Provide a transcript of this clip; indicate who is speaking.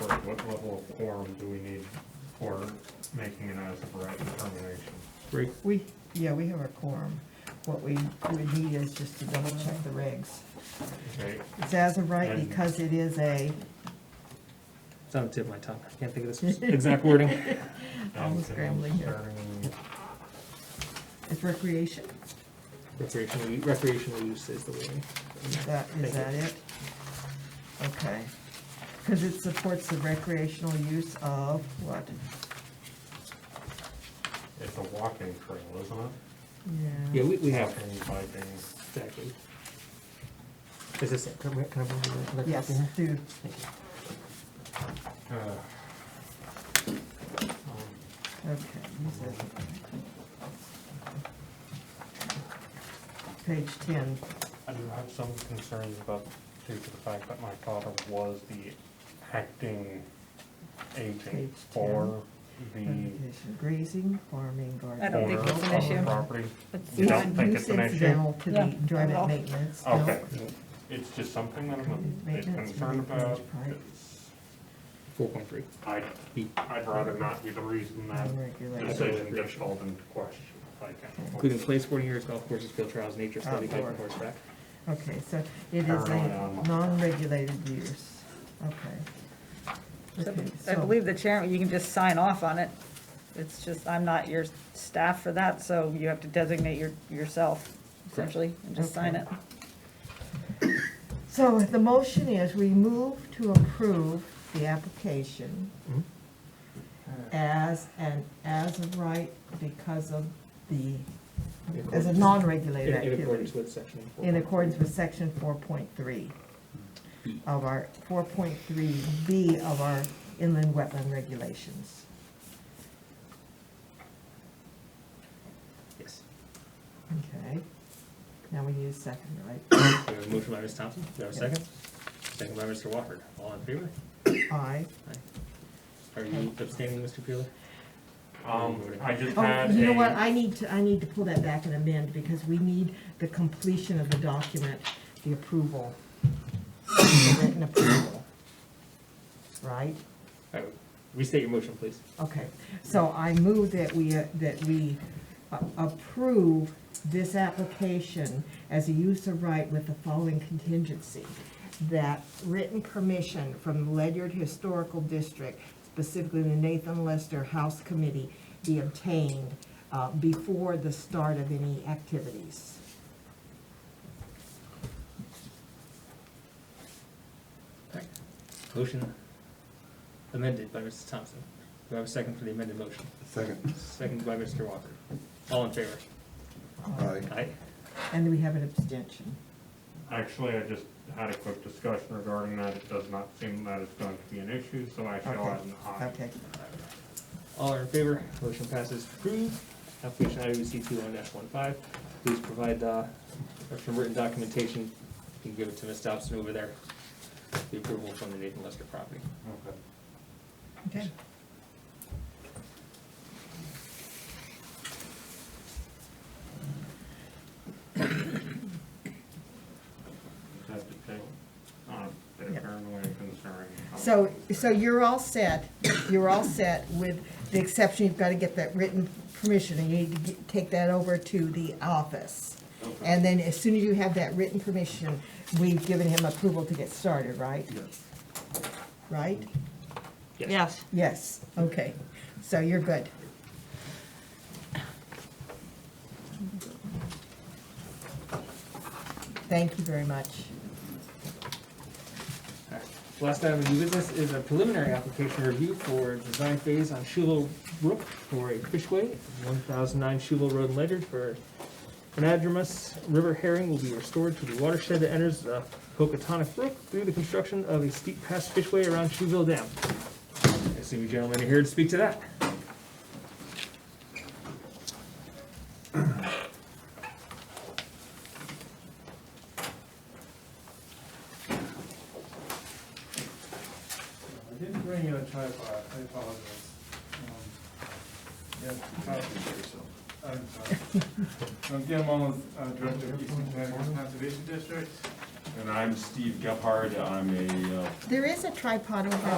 Speaker 1: like what level of quorum do we need for making an as of right determination?
Speaker 2: Right,
Speaker 3: We, yeah, we have our quorum. What we would need is just to double check the regs.
Speaker 1: Okay,
Speaker 3: It's as of right
Speaker 1: And-
Speaker 3: because it is a,
Speaker 2: it's on the oh, tip of my tongue, I can't think of this exact wording.
Speaker 3: I'm scrambling here.
Speaker 1: starting-
Speaker 3: It's recreation?
Speaker 2: Recreational, u- recreational use is the wording.
Speaker 3: Is that, is that it? Okay. Because it supports the recreational use of what?
Speaker 1: It's a walking trail, isn't it?
Speaker 2: Yeah, we, we have,
Speaker 1: Walking, biking,
Speaker 2: exactly. Is this, it? can I can I borrow the other copy
Speaker 3: Yes,
Speaker 2: here?
Speaker 3: do,
Speaker 2: Thank
Speaker 1: uh.
Speaker 2: you.
Speaker 1: um,
Speaker 3: okay. use as of right. Page ten,
Speaker 1: I do have some concerns about, due to the fact that my father was the acting
Speaker 3: Page
Speaker 1: agent for the.
Speaker 3: notification, grazing, farming, gardening.
Speaker 4: I don't think
Speaker 1: owner
Speaker 4: it's an
Speaker 1: of the
Speaker 4: issue.
Speaker 1: Property.
Speaker 4: It's
Speaker 1: You
Speaker 3: It's
Speaker 1: don't
Speaker 4: not-
Speaker 1: think it's an
Speaker 3: nuisance
Speaker 1: issue?
Speaker 3: Incidental to the
Speaker 4: No, not at all.
Speaker 3: enjoyment maintenance, no.
Speaker 1: Oh, Okay, it's just something that I'm a bit
Speaker 3: Maintenance for
Speaker 1: concerned
Speaker 3: the village
Speaker 1: about.
Speaker 3: park.
Speaker 1: It's-
Speaker 2: Four point three.
Speaker 1: I'd, I'd rather not be the reason that
Speaker 3: Unregulated.
Speaker 1: decision gets called into question, if I
Speaker 2: Including
Speaker 1: can.
Speaker 2: play sporting areas, golf courses, field trials, nature study, hiking,
Speaker 3: Outdoor.
Speaker 2: horseback.
Speaker 3: Okay, so it is
Speaker 1: Paranoid
Speaker 3: a
Speaker 1: animal.
Speaker 3: non-regulated use, okay. Okay,
Speaker 4: I
Speaker 3: so-
Speaker 4: believe the chairman, you can just sign off on it. It's just, I'm not your staff for that, so you have to designate your, yourself essentially and just sign it.
Speaker 3: So the motion is we move to approve the application
Speaker 2: Mhm.
Speaker 3: Uh, as an as of right because of the,
Speaker 2: In
Speaker 3: as a
Speaker 2: accordance-
Speaker 3: non-regulated
Speaker 2: in- In
Speaker 3: activity.
Speaker 2: accordance with section. four
Speaker 3: in
Speaker 2: point
Speaker 3: accordance
Speaker 2: three.
Speaker 3: with section four point three of our, four point three B of our inland wetland regulations.
Speaker 2: Yes.
Speaker 3: Okay, now we need a second, right?
Speaker 2: We have a motion by Ms. Thompson, do we have a
Speaker 3: Yes.
Speaker 2: second? Second by Mr. Wofford, all in favor?
Speaker 3: Aye.
Speaker 2: Are you abstaining, Mr. Peeler?
Speaker 1: Um, I just
Speaker 3: Oh,
Speaker 1: had
Speaker 3: you know what,
Speaker 1: a,
Speaker 3: I need to, I need to pull that back and amend, because we need the completion of the document, the approval. the Written approval. Right?
Speaker 2: All right, Restate your motion, please.
Speaker 3: Okay, so I move that we, uh, that we a- approve this application as a use of right with the following contingency. That written permission from the Ledyard Historical District, specifically the Nathan Lester House Committee, be obtained uh, before the start of any activities.
Speaker 2: Motion amended by Mrs. Thompson. Do I have a second for the amended motion?
Speaker 5: Second.
Speaker 2: Second by Mr. Walker. All in favor?
Speaker 5: Aye.
Speaker 2: Aye.
Speaker 3: And we have an abstention.
Speaker 1: actually, I just had a quick discussion regarding that. It does not seem that it's going to be an issue, so I shall add an aye.
Speaker 3: Okay,
Speaker 2: All are in favor? Motion passes approved. Application IWC two one dash one five. Please provide, uh, some written documentation. You can give it to Ms. Thompson over there. The approval from the Nathan Lester property.
Speaker 1: Okay.
Speaker 3: okay.
Speaker 1: Have to take on a bit of
Speaker 3: Yep.
Speaker 1: paranoia concerning. how
Speaker 3: So,
Speaker 1: things
Speaker 3: so you're all set, you're all set with the exception, you've got to get that written permission, and you need to get- take that over to the office. And then as soon as you have that written permission, we've given him approval to get started, right?
Speaker 5: Yes.
Speaker 3: Right?
Speaker 2: Yes.
Speaker 3: Yes, okay, so you're good. Thank you very much.
Speaker 2: All right. Last item of new business is a preliminary application review for design phase on Shulow Brook for a fishway, one thousand nine Shulow Road in Ledyard for anadromous river herring will be restored to the watershed that enters the Pocatonic Brook through the construction of a steep pass fishway around Shuville Dam. I assume you gentlemen are here to speak to that.
Speaker 6: I didn't bring you a tripod, I apologize. Um, Yeah, tripod. I'm sorry. I'm Guillermo, uh, Director of Eastern Connecticut Conservation District.
Speaker 7: And I'm Steve Gephardt, I'm a uh,
Speaker 3: There is a tripod over